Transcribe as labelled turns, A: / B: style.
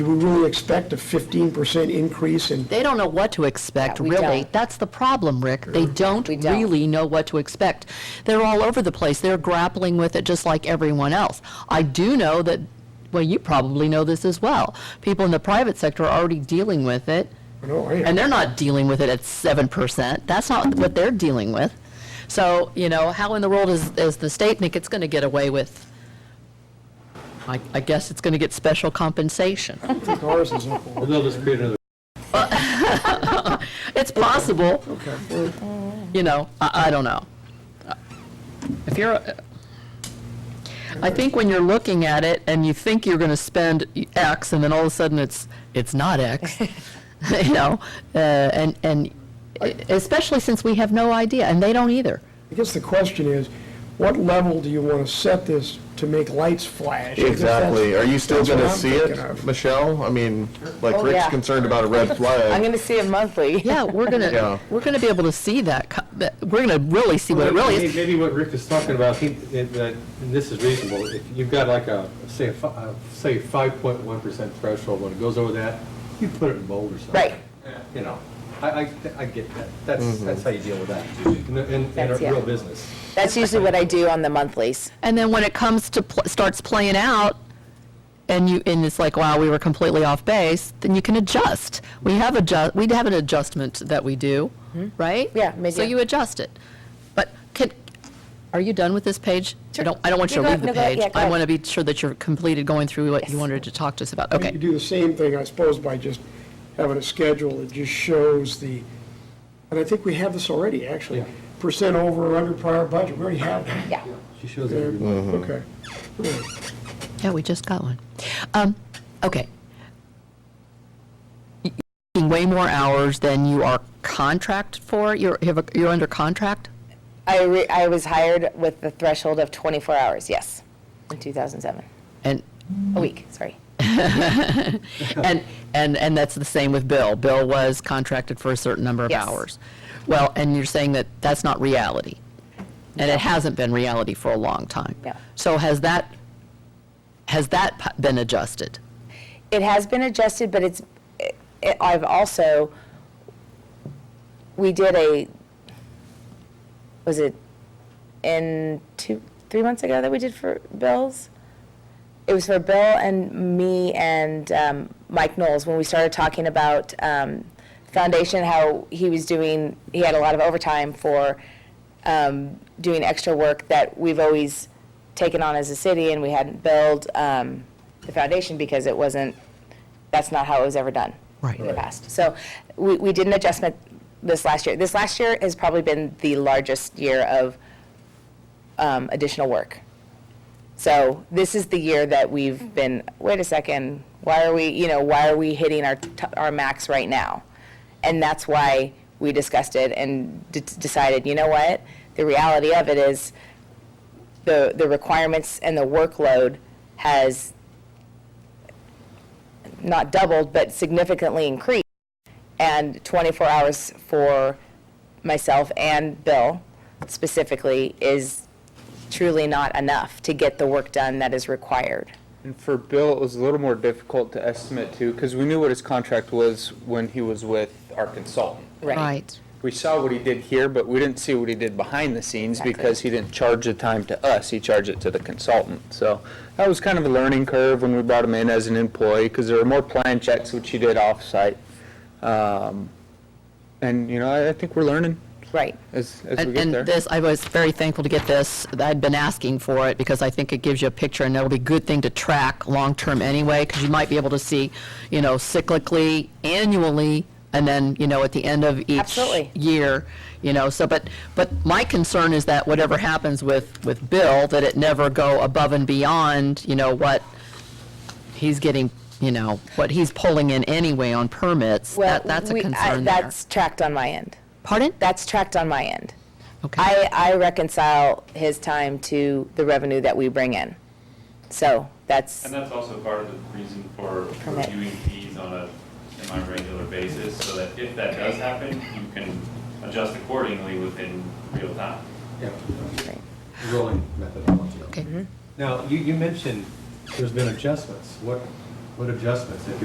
A: Do we really expect a 15% increase in,
B: They don't know what to expect,
C: Yeah, we
B: really.
C: don't.
B: That's the problem, Rick. They don't
C: We don't.
B: really know what to expect. They're all over the place. They're grappling with it just like everyone else. I do know that, well, you probably know this as well. People in the private sector are already dealing with it,
A: no, I-
B: and they're not dealing with it at 7%. That's not what they're dealing with. So, you know, how in the world is, is the state think it's going to get away with? I, I guess it's going to get special compensation.
A: ours is up.
D: Well, they'll just create another
B: It's possible.
A: Okay, well,
B: you know, I, I don't know. If you're, a- I think when you're looking at it and you think you're going to spend X and then all of a sudden it's, it's not X, you know, uh, and, and especially since we have no idea and they don't either.
A: I guess the question is, what level do you want to set this to make lights flash? I guess that's-
E: Exactly. Are you still
A: that's what
E: going to
A: I'm
E: see
A: thinking
E: it,
A: of.
E: Michelle? I mean, like
C: Oh,
E: Rick's
C: yeah.
E: concerned about a red
C: I'm
E: flag.
C: going to see it monthly.
B: Yeah, we're going
E: Yeah.
B: to, we're going to be able to see that, co- that- we're going to really see what it really
D: Maybe-
B: is.
D: Maybe what Rick is talking about, he, that, that- and this is reasonable, if you've got like a, say, a fi- uh, say five point one percent threshold, when it goes over that, you put it in bold or something.
C: Right.
D: You know, I, I, I get that, that's,
B: Mm-hmm.
D: that's how you deal with that, in, the- in, in a
C: That's- yeah.
D: real business.
C: That's usually what I do on the monthlies.
B: And then when it comes to, pl- starts playing out, and you, and it's like, wow, we were completely off base, then you can adjust. We have adjust, we have an adjustment that we do, right?
C: Mm-hmm. Yeah,
B: So
C: mid-year.
B: you adjust it. But can, are you done with this page? I
C: Sure.
B: don't, I don't want you
C: You
B: to
C: go-
B: leave the
C: no, go- yeah,
B: page.
C: go
B: I
C: ahead.
B: want to be sure that you're completed going through what you wanted to talk to us about.
A: You
B: Okay.
A: do the same thing, I suppose, by just having a schedule that just shows the, and I think we have this already, actually,
D: Yeah.
A: percent over or under prior budget, we already have that.
C: Yeah.
D: She shows
A: Yeah,
D: everybody.
A: Okay.
B: Yeah, we just got one. Um, okay. Y- You're working Way more hours than you are contract for? You're, you have a- you're under contract?
C: I, re- I was hired with the threshold of 24 hours, yes, in 2007.
B: And
C: A week, sorry.
B: And, and, and that's the same with Bill. Bill was contracted for a certain number of
C: Yes.
B: hours. Well, and you're saying that that's not reality. And it hasn't been reality for a long time.
C: No.
B: So has that, has that p- been adjusted?
C: It has been adjusted, but it's, it- I've also, we did a, was it in two, three months ago that we did for Bill's? It was for Bill and me and um, Mike Knowles when we started talking about um, foundation, how he was doing, he had a lot of overtime for um, doing extra work that we've always taken on as a city and we hadn't billed um, the foundation because it wasn't, that's not how it was ever done
B: Right.
C: in the past. So we, we did an adjustment this last year. This last year has probably been the largest year of um, additional work. So this is the year that we've been, wait a second, why are we, you know, why are we hitting our, t- our max right now? And that's why we discussed it and d- decided, you know what? The reality of it is the, the requirements and the workload has not doubled, but significantly increased. And 24 hours for myself and Bill specifically is truly not enough to get the work done that is required.
F: And for Bill, it was a little more difficult to estimate too, because we knew what his contract was when he was with our consultant. We saw what he did here, but we didn't see what he did behind the scenes
C: Exactly.
F: because he didn't charge the time to us, he charged it to the consultant. So that was kind of a learning curve when we brought him in as an employee, because there were more plan checks which he did off-site. Um, And, you know, I- I think we're learning
C: Right.
F: as, as we
B: And,
F: get
B: and
F: there.
B: this, I was very thankful to get this. I'd been asking for it because I think it gives you a picture and that'll be a good thing to track long-term anyway, because you might be able to see, you know, cyclically, annually, and then, you know, at the end of each
C: Absolutely.
B: year, you know, so, but, but my concern is that whatever happens with, with Bill, that it never go above and beyond, you know, what he's getting, you know, what he's pulling in anyway on permits.
C: Well,
B: That, that's a
C: we- I-
B: concern there.
C: That's tracked on my end.
B: Pardon?
C: That's tracked on my end.
B: Okay.
C: I, I reconcile his time to the revenue that we bring in. So that's,
G: And that's also part of the reason for
C: Correct.
G: reviewing fees on a semi-regular basis, so that if that does happen, you can adjust accordingly within real time.
D: Yeah. Rolling methodology.
B: Okay. Mm-hmm.
D: Now, you, you mentioned there's been adjustments. What, what adjustments? If